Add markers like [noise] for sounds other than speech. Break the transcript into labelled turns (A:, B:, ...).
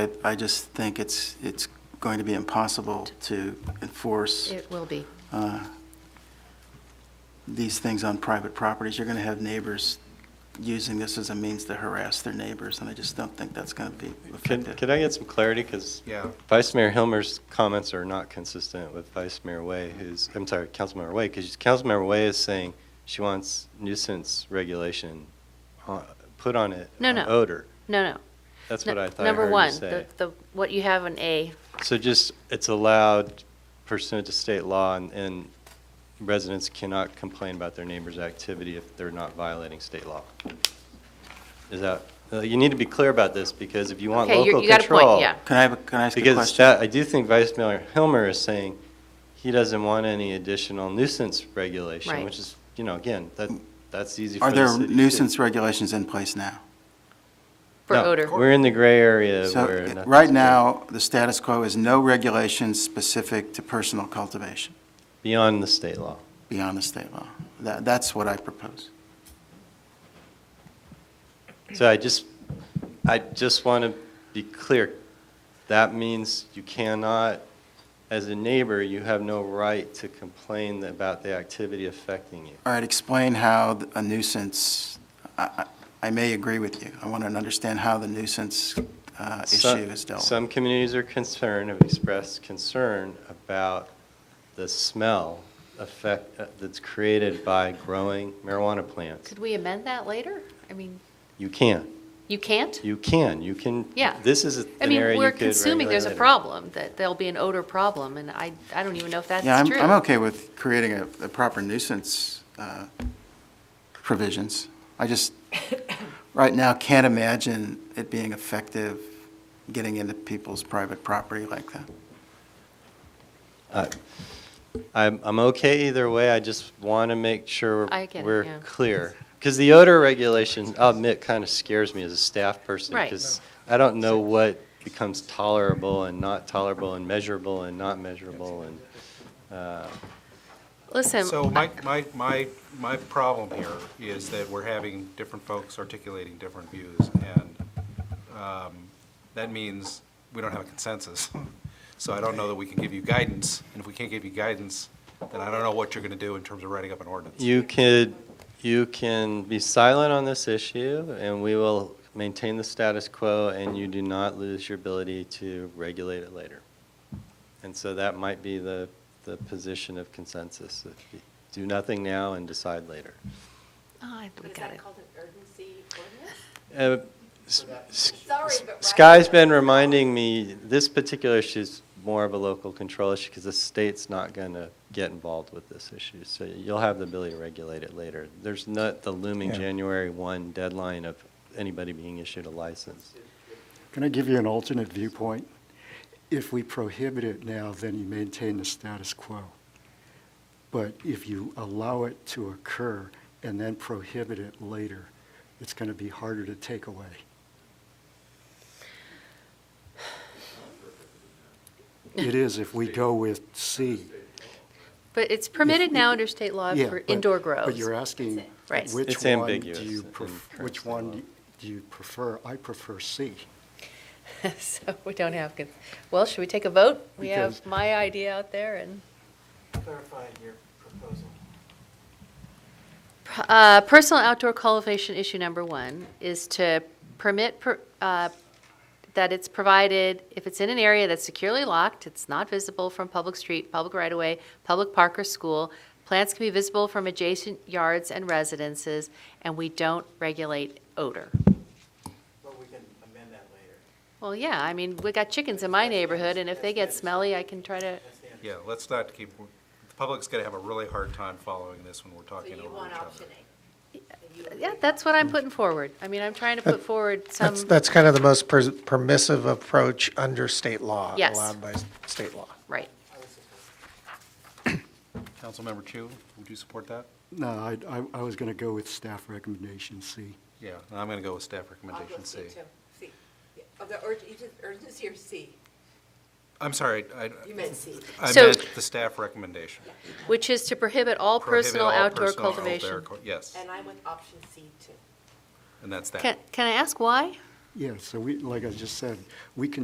A: I- I just think it's, it's going to be impossible to enforce
B: It will be.
A: uh, these things on private properties. You're going to have neighbors using this as a means to harass their neighbors, and I just don't think that's going to be
C: Can,
A: effective.
C: can I get some clarity? Because
D: Yeah.
C: Vice Mayor Hilmer's comments are not consistent with Vice Mayor Way, who's, I'm sorry, Councilmember Way, because Councilmember Way is saying she wants nuisance regulation on- put on it,
B: No,
C: on
B: no.
C: odor.
B: No, no.
C: That's
B: No-
C: what I thought I
B: Number
C: heard you
B: one,
C: say.
B: the, the, what you have in A,
C: So just, it's allowed pursuant to state law, and- and residents cannot complain about their neighbor's activity if they're not violating state law. Is that, uh, you need to be clear about this, because if you want
B: Okay, you-
C: local
B: you got a point,
C: control,
B: yeah.
A: Can I, have a- can I ask a question?
C: Because that, I do think Vice Mayor Hilmer is saying he doesn't want any additional nuisance regulation,
B: Right.
C: which is, you know, again, that, that's easy for
A: Are
C: the
A: there
C: city. to do.
A: nuisance regulations in place now?
B: for
C: No,
B: odor.
C: We're in the gray area
A: So, eh,
C: where. nothing's
A: right
C: good.
A: now, the status quo is no regulations specific to personal cultivation
C: Beyond the state law.
A: beyond the state law. That, that's what I propose.
C: So I just, I just want to be clear. That means you cannot, as a neighbor, you have no right to complain about the activity affecting you.
A: All right, explain how th- a nuisance, I, I I may agree with you. I want to understand how the nuisance uh, issue
C: Some-
A: is dealt with.
C: Some communities are concerned, have expressed concern about the smell effect uh, that's created by growing marijuana plants.
B: Could we amend that later? I mean,
C: You can,
B: you can't?
C: you can, you can.
B: Yeah.
C: This is a-
B: I
C: an area
B: mean,
C: you
B: we're
C: could
B: consuming there's a
C: regulate.
B: problem, that there'll be an odor problem, and I, I don't even know if that's
A: Yeah, I'm,
B: true.
A: I'm okay with creating a, a proper nuisance uh, provisions. I
B: [coughs]
A: just, right now, can't imagine it being effective getting into people's private property like that.
C: I- I'm, I'm okay either way, I just want to make sure
B: I get it, yeah.
C: we're clear. Because the odor regulation, I'll admit, kind of scares me as a staff person.
B: Right.
C: Because I don't know what becomes tolerable and not tolerable and measurable and not measurable and, uh,
B: Listen,
D: So my, my, my, my problem here is that we're having different folks articulating different views, and um, that means we don't have a consensus. [laughs] So I don't know that we can give you guidance, and if we can't give you guidance, then I don't know what you're gonna do in terms of writing up an ordinance.
C: you could, you can be silent on this issue and we will maintain the status quo and you do not lose your ability to regulate it later. And so that might be the, the position of consensus. if you Do nothing now and decide later.
B: Oh, I we
E: Is
B: got
E: that
B: it.
E: called an urgency
C: Uh,
E: ordinance?
C: s- s-
E: Sorry, but right-
C: Sky's been reminding me, this particular issue is more of a local control issue because the state's not going to get involved with this issue. So you'll have the ability to regulate it later. There's not the looming
F: Yeah.
C: January 1 deadline of anybody being issued a license.
F: Can I give you an alternate viewpoint? If we prohibit it now, then you maintain the status quo. But if you allow it to occur and then prohibit it later, it's going to be harder to take away. It is if we go with C.
B: But it's permitted now under state law
F: Yeah,
B: for
F: but-
B: indoor grows.
F: But you're asking,
B: Right.
C: It's
F: which one do
C: ambiguous
F: you,
C: in
F: pref-
C: current
F: which
C: state law.
F: one do you prefer? I prefer C.
B: [laughs] So we don't have, con- well, should we take a vote? We have
F: Because-
B: my idea out there and.
A: Clarify your proposal.
B: Uh, Personal outdoor cultivation issue number one is to permit per- uh, that it's provided, if it's in an area that's securely locked, it's not visible from public street, public right-of-way, public park or school, plants can be visible from adjacent yards and residences, and we don't regulate odor.
A: But we can amend that later.
B: Well, yeah, I mean, we got chickens in my neighborhood, and if they get smelly, I can try to,
D: Yeah, let's not keep, the public's gonna have a really hard time following this when we're
E: So
D: talking
E: you
D: over
E: want
D: each
E: option
D: other.
E: A.
B: yeah, that's what I'm putting forward. I mean, I'm trying to put forward some.
G: Mm. That's, that's kind of the most pers- permissive approach under state law.
B: Yes.
G: Allowed by s- state law.
B: Right.
D: Councilmember Chu, would you support that?
F: No, I, I- I was going to go with staff recommendation C.
D: Yeah, and I'm gonna go with staff
E: I'll go
D: recommendation
E: C
D: C.
E: too, C. Yeah. Of the urg- you did urgency or C?
D: I'm sorry, I,
E: You meant C.
D: I
B: So-
D: meant the staff recommendation.
B: Which is to prohibit all
D: Prohibit
B: personal
D: all
B: outdoor
D: personal outdoor
B: cultivation.
D: cul- Yes,
E: And I'm with option C too.
D: and that's that.
B: Can, can I ask why?
F: Yeah, so we, like I just said, we can